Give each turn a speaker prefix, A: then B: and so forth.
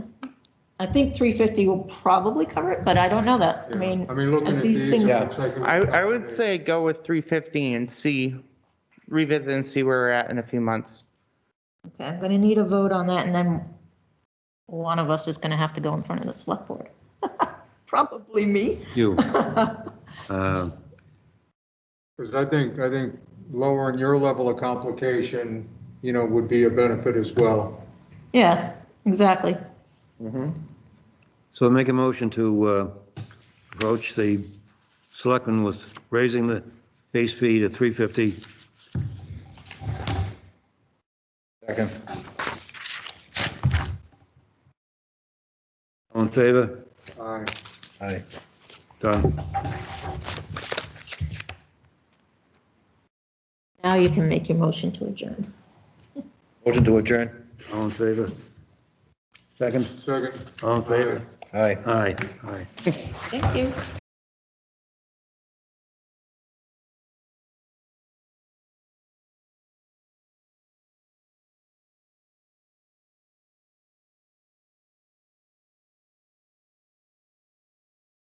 A: I think three fifty will probably cover it, but I don't know that. I mean,
B: I mean, looking
A: as
B: at
A: these
B: these, it
A: things-
B: looks like. it
C: I, I would
B: probably-
C: say go with 350 and see, revisit and see where we're at in a few months.
A: okay, I'm gonna need a vote on that and then one of us is gonna have to go in front of the select board. Probably me.
D: You. Uh,
B: Because I think, I think lowering your level of complication, you know, would be a benefit as well.
A: Yeah, exactly.
D: So make a motion to uh, approach the selectmen with raising the base fee to 350.
E: Second.
D: All in favor?
B: Aye.
E: Aye.
D: Done.
A: Now you can make your motion to adjourn.
E: Motion to adjourn.
D: All in favor? Second?
B: Second.
D: All in favor?
E: Aye.
D: Aye, aye.
A: Thank you.